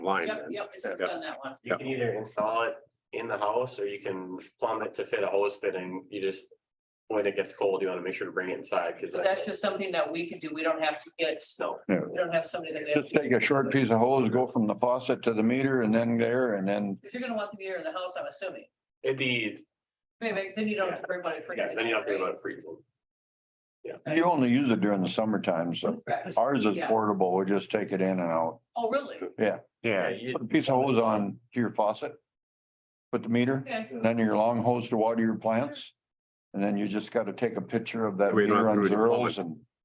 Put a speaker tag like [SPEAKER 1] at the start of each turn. [SPEAKER 1] line.
[SPEAKER 2] Yep, yep, it's
[SPEAKER 1] Yep.
[SPEAKER 2] done that one.
[SPEAKER 1] Yeah.
[SPEAKER 3] You can either install it in the house or you can plumb it to fit a hose fitting. You just. When it gets cold, you wanna make sure to bring it inside, cause.
[SPEAKER 2] But that's just something that we can do. We don't have to get,
[SPEAKER 3] No,
[SPEAKER 2] we don't have somebody that. we have
[SPEAKER 4] Just
[SPEAKER 2] to-
[SPEAKER 4] take a short piece of hose, go from the faucet to the meter and then there and then
[SPEAKER 2] If you're gonna want the meter in the house, I'm assuming.
[SPEAKER 3] it'd be,
[SPEAKER 2] Maybe, then you don't have to worry about it.
[SPEAKER 3] yeah, then you don't have to worry about it freezing.
[SPEAKER 4] you only use it during the summertime. So
[SPEAKER 2] Correct.
[SPEAKER 4] ours is
[SPEAKER 2] Yeah.
[SPEAKER 4] portable. We just take it in and out.
[SPEAKER 3] uh,
[SPEAKER 2] Oh, really?
[SPEAKER 1] Yeah,
[SPEAKER 3] you-
[SPEAKER 4] Put a piece of hose on to your faucet. Put the meter,
[SPEAKER 2] Okay.
[SPEAKER 4] then your long hose to water your plants. And then you just got to take a picture of that
[SPEAKER 1] We don't have
[SPEAKER 4] meter
[SPEAKER 1] to
[SPEAKER 4] on
[SPEAKER 1] do it in
[SPEAKER 4] zeros and